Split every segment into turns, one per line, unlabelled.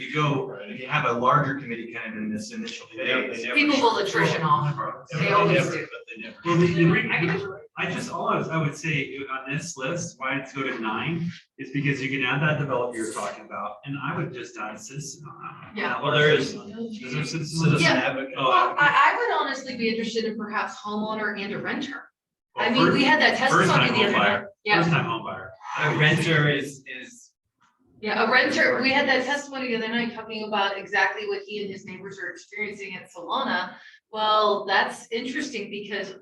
you go, you have a larger committee kind of in this initial phase.
People will attrition off, they always do.
Well, the, the
I
re-
guess-
I just, all I was, I would say on this list, why it's go to nine is because you can add that developer you're talking about, and I would just add citizen on that. one.
Yeah.
Well, there is-
Is there citizen?
Yeah. Well,
Oh,
I, I would honestly be interested in perhaps homeowner and a renter. I
well,
mean, we
first-
had that test
first-time
study the other
homebuyer.
night. Yeah,
First time home buyer.
A renter is, is,
yeah, a renter, we had that testimony the other night talking about exactly what he and his neighbors are experiencing at Solana. Well, that's interesting because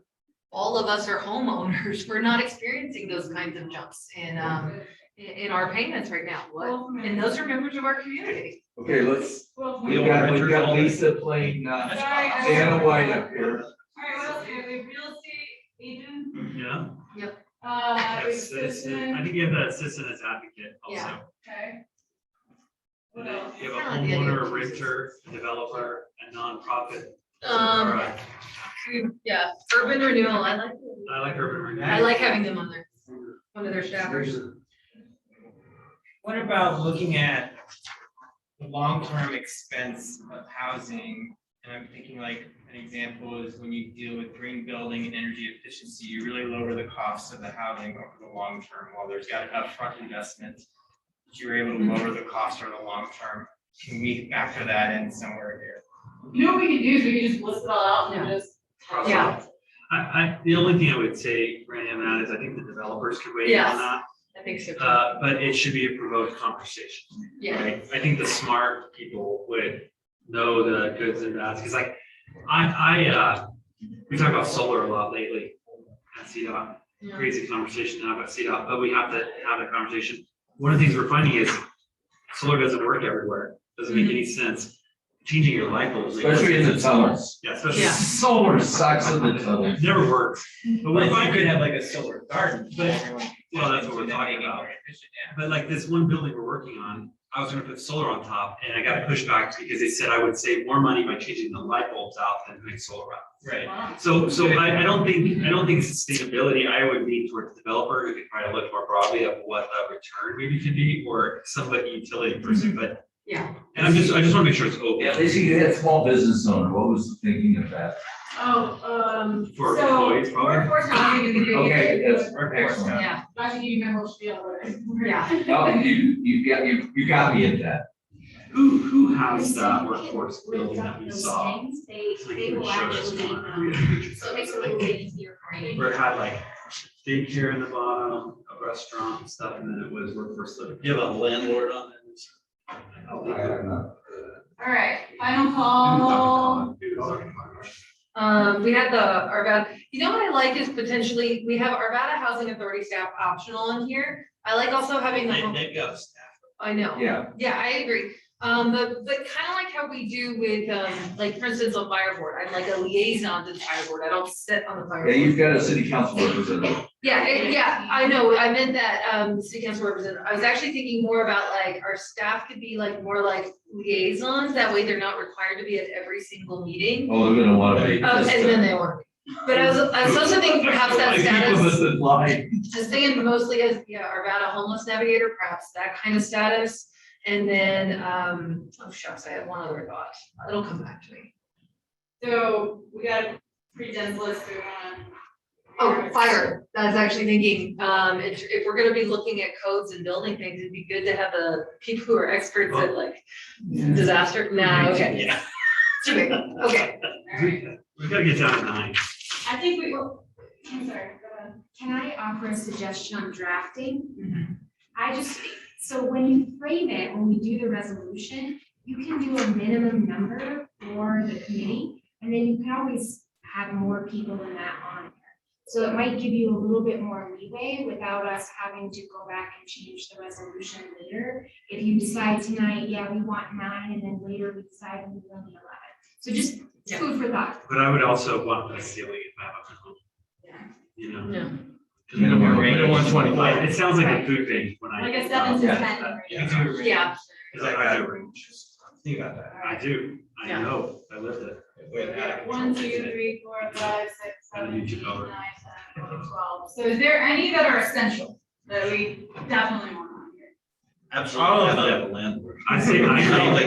all of us are homeowners. We're not experiencing those kinds of jumps in, um, in, in our payments right now. What? And those are members of our community.
Okay, let's,
We
we've
don't
got,
renters
we've got
only.
Lisa playing, uh,
Sorry, I-
Dana White up here.
Alright, what else do we have? We have real estate agent,
Yeah.
uh, we have
Yes, citizen. I
citizen,
think you have that citizen as advocate
Yeah.
also.
okay.
And
What
then
else?
You
I
have a
like the idea
homeowner,
of
a
citizens.
renter, a developer, a nonprofit. or
Um,
a-
yeah, urban renewal, I like,
I like urban renewal.
I like having them on there, one of their staffers.
what about looking at the long-term expense of housing? And I'm thinking like, an example is when you deal with green building and energy efficiency, you really lower the cost of the housing over the long term. While there's got an upfront investment, you're able to lower the cost over the long term. Can we factor that in somewhere here?
You know what we could do is we could just list it all out and
Yeah.
just.
Yeah.
I, I, the only thing I would say, Randy, on that is I think the developers could weigh in
Yes.
on that.
I think so. too.
Uh, but it should be a provoked conversation.
Yeah.
right? I think the smart people would know the goods and bads, because like, I, I, uh, we talk about solar a lot lately at CDOT,
Yeah.
crazy conversation now about CDOT, but we have to have that conversation. One of the things we're finding is solar doesn't work everywhere, doesn't make any sense. Changing your light bulbs. like-
Especially in the tunnels.
Yeah, especially,
Yeah.
Solar sucks in the tunnels.
it never works. But we're
Like, you could
finding,
have like a solar garden.
But- well, that's what we're talking about. But like this one building we're working on, I was gonna put solar on top and I got pushback because they said I would save more money by changing the light bulbs out than doing solar out.
Right.
Wow.
So, so I, I don't think, I don't think sustainability, I would lean towards the developer who could probably look more broadly at what a return maybe could be or somebody utility person, but.
Yeah.
And I'm just, I just wanna make sure it's
At
open
least you had small business owner, what was the thinking of that?
Oh, um,
for
so
employees probably.
workforce housing is a good.
Okay, that's
I
excellent.
Yeah,
should give you my whole spiel, but-
Yeah.
No,
Oh,
you, you got, you, you got me at that.
Who, who has that uh, workforce building that we saw?
They,
So you
they
can
will
show us
actually,
one.
um, so it makes it a little bit easier for you.
Where it had like daycare in the bottom, a restaurant and stuff, and then it was workforce living. You have a landlord on it?
know.
Alright, final call.
um, we had the Arvada, you know what I like is potentially, we have Arvada Housing Authority staff optional in here. I like also having the, home-
They've got staff.
I know,
Yeah,
yeah, I agree. Um, but, but kind of like how we do with, um, like, for instance, on fire board, I'm like a liaison to the fire board, I don't sit on the fire.
yeah,
board.
you've got a city council representative.
Yeah, it- yeah, I know, I meant that, um, city council representative, I was actually thinking more about like, our staff could be like, more like liaisons, that way they're not required to be at every single meeting.
Oh, they're gonna wanna be.
Um, and then they were, but I was, I
Uh,
was also thinking perhaps that
People
status,
that lie.
I was thinking mostly as, yeah, our about a homeless navigator, perhaps that kind of status. And then, um, oh shucks, I had one other thought, it'll come back to me.
So we got a pretty dense list, we wanna.
Oh, fire, I was actually thinking, um, if, if we're gonna be looking at codes and building things, it'd be good to have a, people who are experts at like disaster, no, okay.
Yeah.
Too big, okay,
Alright.
We gotta get down to nine.
I think we, I'm sorry, go ahead.
Can I offer a suggestion on
Mhm.
drafting? I just, so when you frame it, when we do the resolution, you can do a minimum number for the committee, and then you can always have more people than that on there. So it might give you a little bit more leeway without us having to go back and change the resolution later. If you decide tonight, yeah, we want nine, and then later we decide we want eleven. So just
Yeah.
food for thought.
But I would also want the ceiling if I have a home. You know.
no.
Minimum wage.
Minimum
Like,
twenty-five.
it sounds like a food thing when I.
Like a seven to
Yeah.
ten, right?
Yeah.
Cause I got a range.
Think about that.
I do, I
Yeah.
know, I lived it.
We have that.
One, two, three, four, five, six, seven,
And
eight,
you
nine,
took
ten,
over.
eleven, twelve. So is there any that are essential that we definitely want on here?
All of them.
I say, I
I don't
think.
think